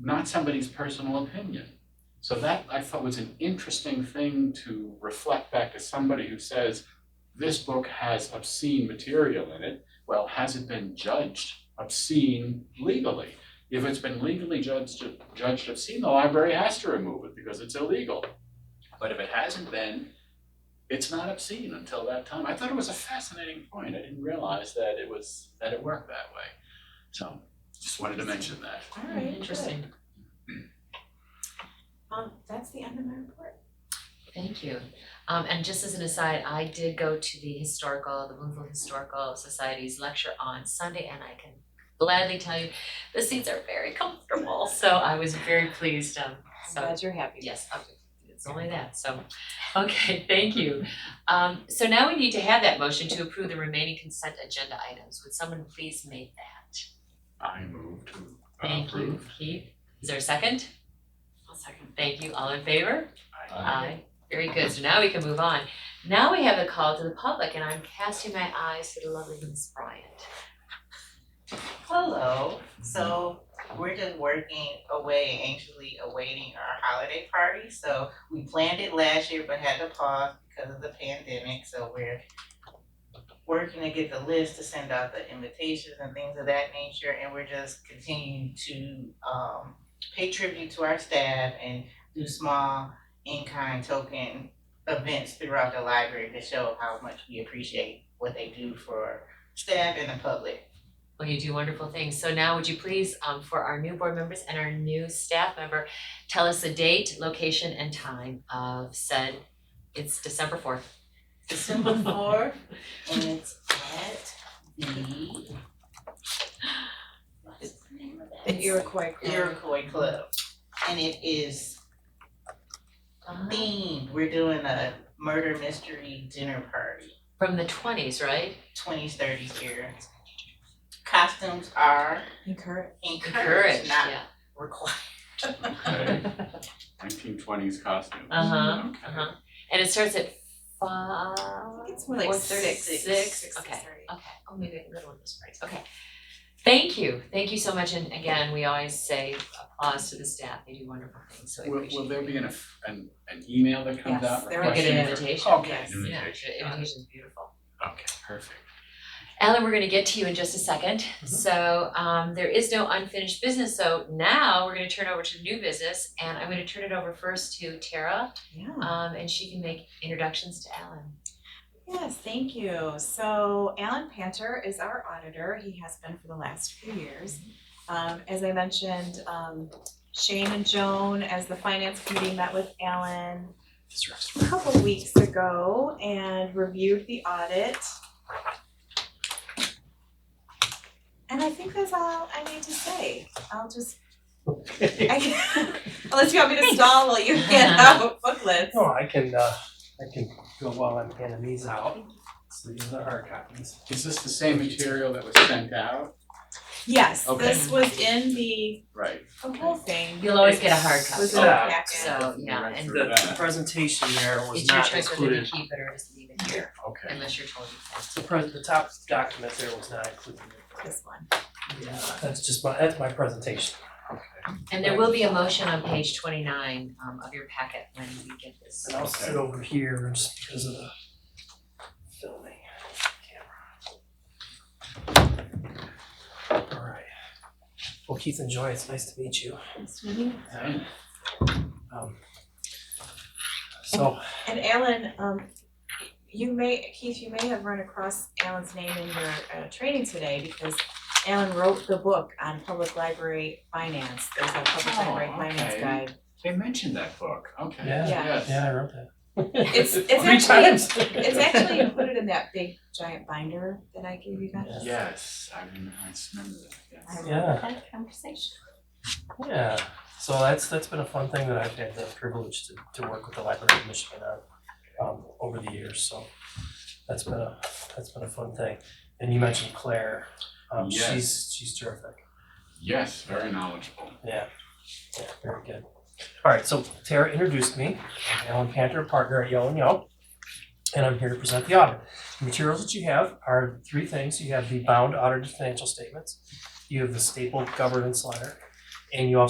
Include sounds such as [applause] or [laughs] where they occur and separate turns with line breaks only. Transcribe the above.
not somebody's personal opinion. So that I thought was an interesting thing to reflect back to somebody who says, this book has obscene material in it. Well, has it been judged obscene legally? If it's been legally judged, judged obscene, the library has to remove it because it's illegal. But if it hasn't been, it's not obscene until that time. I thought it was a fascinating point. I didn't realize that it was, that it worked that way. So just wanted to mention that.
All right,
Interesting.
good. Um, that's the end of my report.
Thank you. Um and just as an aside, I did go to the historical, the Louisville Historical Society's lecture on Sunday and I can gladly tell you, the seats are very [laughs] comfortable, so I was very pleased, um so.
I'm glad you're happy.
Yes, um, it's only that, so, okay, [laughs] thank you. Um so now we need to have that motion to approve the remaining consent agenda items. Would someone please make that?
I move to
Thank you,
approve.
Keith. Is there a second?
I'll second.
Thank you, all in favor?
I-
Aye. Very good, so now we can move on. Now we have a call to the public and I'm casting my eyes to the lovely Miss Bryant.
Hello, so we're just working away, anxiously awaiting our holiday party, so we planned it last year but had to pause because of the pandemic, so we're working to get the list to send out the invitations and things of that nature, and we're just continuing to um pay tribute to our staff and do small in-kind token events throughout the library to show how much we appreciate what they do for staff and the public.
Well, you do wonderful things, so now would you please, um, for our new board members and our new staff member, tell us the date, location and time of said, it's December fourth.
[laughs] December fourth, and it's at the what's the name of that?
The Iroquois Club.
Iroquois Club. And it is
Uh,
themed, we're doing a murder mystery dinner party,
From the twenties, right?
twenties, thirties here. Costumes are
Encourage.
encouraged,
Encouraged,
not
yeah,
required.
Okay.
[laughs]
Nineteen twenties costumes.
uh-huh,
Mm-hmm.
Okay.
uh-huh, and it starts at five,
It's more
four
like
thirty,
six.
six, okay.
to thirty.
Okay, oh, maybe I can go to one of those parties, okay. Thank you, thank you so much, and again, we always say applause to the staff, they do wonderful things, so we
Will,
appreciate it.
will there be an, eff- an, an email that comes
Yes,
out
there will
We'll
requesting?
get an
for-
invitation,
Okay,
yes,
an
yeah,
invitation.
the invitation's beautiful.
Okay, perfect.
Ellen, we're gonna get to you in just a second,
Mm-hmm.
so um there is no unfinished business, so now we're gonna turn over to new business, and I'm gonna turn it over first to Tara,
Yeah.
Hmm.
um and she can make introductions to Ellen.
Yes, thank you. So Alan Panter is our auditor. He has been for the last few years. Um, as I mentioned, um, Shane and Joan, as the finance committee, met with Alan a couple weeks ago and reviewed the audit. And I think that's all I need to say. I'll just. I- [laughs] Unless you want me to stall while you hand
Uh-huh.
out booklets.
No, I can, uh, I can go while I'm handing these out. So these are our copies.
Is this the same material that was sent out?
Yes,
Okay.
this was in the,
Right.
the whole thing.
You'll always get a hard copy,
Was
Was
in
in
the
the
packet.
so,
We
yeah,
went
and
through
The
that.
presentation there was
it's your
not
choice whether to
included.
keep it or just leave it here,
Okay.
unless you're told you can.
The pres, the top document there was not included.
This one.
Yeah, that's just my, that's my presentation.
And there will be a motion on page twenty-nine um of your packet when we get this.
And I'll sit over here just because of the filming camera. All right. Well, Keith and Joy, it's nice to meet you.
Same.
Um, So
And Alan, um, you may, Keith, you may have run across Alan's name in your uh training today because Alan wrote the book on public library finance. There's a public
Oh,
library finance
okay.
guide.
They mentioned that book, okay,
Yeah.
Yeah.
yes.
Yeah, I wrote that.
[laughs]
It's it's
Three
actually,
times.
it's actually included in that big giant binder that I gave you guys.
Yeah.
Yes, I remember, I just remember that, yes.
Yeah,
Had a conversation.
yeah. So that's that's been a fun thing that I've had the privilege to to work with the Library of Michigan on um over the years, so that's been a that's been a fun thing. And you mentioned Claire, um
Yes.
she's she's terrific.
Yes, very knowledgeable.
Yeah, very good. All right, so Tara introduced me, I'm Alan Panter, partner at Yellow and Yelp, and I'm here to present the audit. The materials that you have are three things. You have the bound audited financial statements, you have the stapled governance letter, and you also